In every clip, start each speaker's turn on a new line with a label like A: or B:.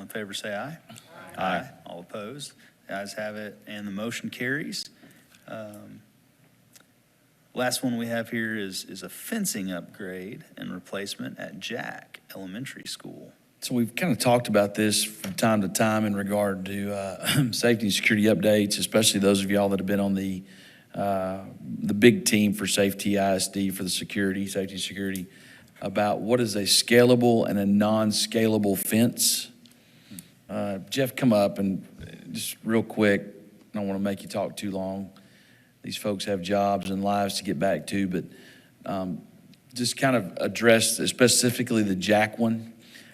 A: in favor say aye. Aye. All opposed? The ayes have it, and the motion carries. Um, Last one we have here is, is a fencing upgrade and replacement at Jack Elementary School.
B: So we've kind of talked about this from time to time in regard to uh, safety and security updates, especially those of y'all that have been on the, uh, the big team for safety ISD for the security, safety and security, about what is a scalable and a non-scalable fence. Uh, Jeff, come up and uh, just real quick, I don't want to make you talk too long. These folks have jobs and lives to get back to, but um, just kind of address specifically the Jack one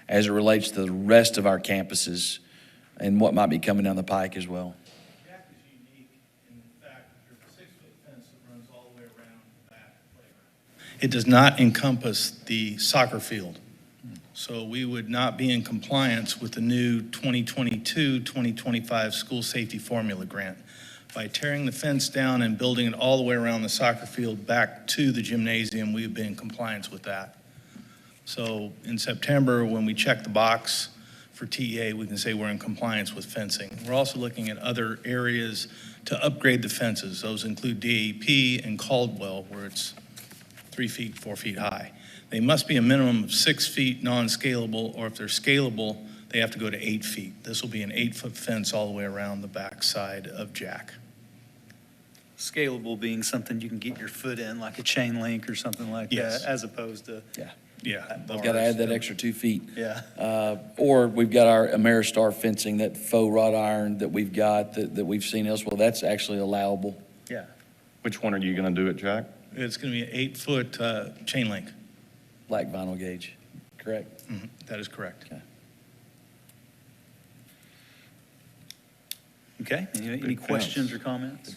B: as it relates to the rest of our campuses and what might be coming down the pike as well.
C: Jack is unique in the fact that there's a six-foot fence that runs all the way around that playground. It does not encompass the soccer field. So we would not be in compliance with the new 2022-2025 school safety formula grant. By tearing the fence down and building it all the way around the soccer field back to the gymnasium, we would be in compliance with that. So in September, when we check the box for TEA, we can say we're in compliance with fencing. We're also looking at other areas to upgrade the fences. Those include DAP and Caldwell, where it's three feet, four feet high. They must be a minimum of six feet non-scalable, or if they're scalable, they have to go to eight feet. This will be an eight-foot fence all the way around the backside of Jack.
A: Scalable being something you can get your foot in, like a chain link or something like that,
C: Yes.
A: as opposed to,
C: Yeah.
A: I've
B: Got to add that extra two feet.
A: yeah.
B: Uh, Or we've got our Ameristar fencing, that faux wrought iron that we've got, that, that we've seen elsewhere, that's actually allowable.
D: Which one are you going to do it, Jack?
C: It's going to be an eight-foot uh, chain link.
B: Black vinyl gauge, correct?
C: Mhm, That is correct.
A: Okay, any, any
D: Big fence.
A: questions or comments?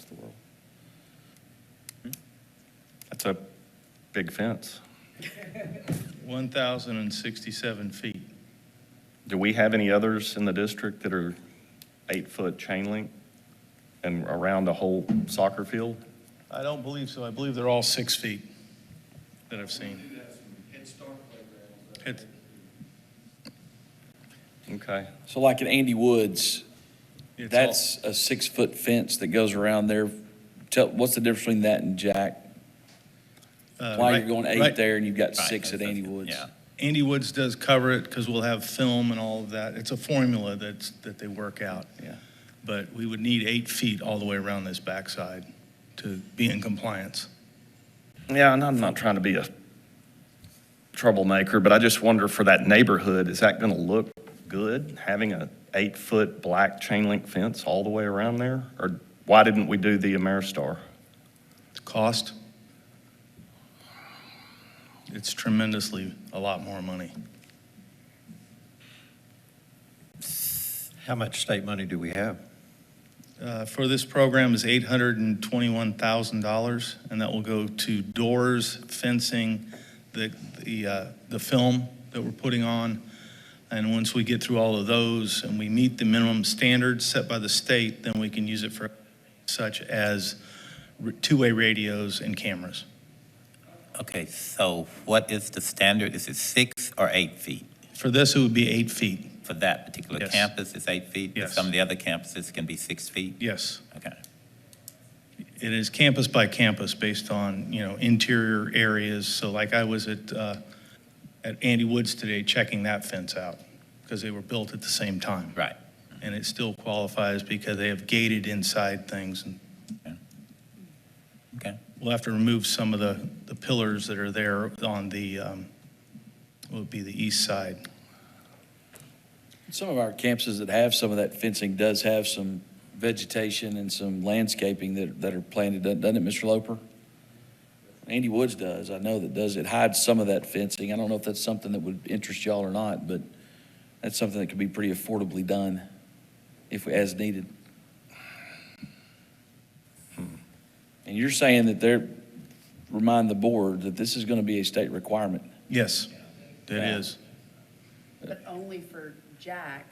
D: Hmm? That's a big fence.
C: 1,067 feet.
D: Do we have any others in the district that are eight-foot chain link and around the whole soccer field?
C: I don't believe so. I believe they're all six feet that I've seen. Head-
D: Okay.
B: So like at Andy Woods,
C: it's all-
B: that's a six-foot fence that goes around there. Tell, what's the difference between that and Jack?
C: uh,
B: Why you're
C: right-
B: going eight
C: right.
B: there and you've got
E: Right,
B: six at
E: that's-
B: Andy
E: that's-
B: Woods?
E: yeah.
C: Andy Woods does cover it because we'll have film and all of that. It's a formula that's, that they work out.
B: Yeah.
C: But we would need eight feet all the way around this backside to be in compliance.
D: Yeah, and I'm not trying to be a troublemaker, but I just wonder for that neighborhood, is that going to look good, having a eight-foot black chain link fence all the way around there? Or why didn't we do the Ameristar?
C: Cost? It's tremendously a lot more money.
F: How much state money do we have?
C: Uh, For this program is $821,000, and that will go to doors, fencing, the, the, uh, the film that we're putting on. And once we get through all of those and we meet the minimum standards set by the state, then we can use it for such as r- two-way radios and cameras.
E: Okay, so what is the standard? Is it six or eight feet?
C: For this, it would be eight feet,
E: For that particular
C: Yes.
E: campus, it's eight feet? but
C: Yes.
E: Some of the other campuses can be six feet?
C: yes.
E: Okay.
C: It is campus by campus based on, you know, interior areas. So like I was at, uh, at Andy Woods today checking that fence out because they were built at the same time.
E: Right.
C: And it still qualifies because they have gated inside things. and
E: Okay.
C: We'll have to remove some of the, the pillars that are there on the, um, what would be the east side.
B: Some of our campuses that have some of that fencing does have some vegetation and some landscaping that, that are planted, doesn't doesn't it, Mr. Loper? Andy Woods does, I know that does, it hides some of that fencing, I don't know if that's something that would interest y'all or not, but that's something that could be pretty affordably done if, we- as needed. And you're saying that they're, remind the board that this is gonna be a state requirement.
C: Yes, it is.
G: But only for Jack,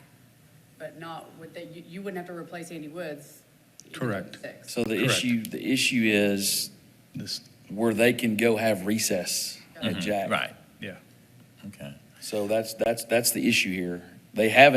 G: but not with the, you, you wouldn't have to replace Andy Woods. you know,
C: Correct.
G: six.
B: So the
C: Correct.
B: issue, the issue is
C: This,
B: where they can go have recess at
E: Mhm,
B: Jack.
E: Right,
C: yeah.
E: okay.
B: So that's, that's, that's the issue here. They have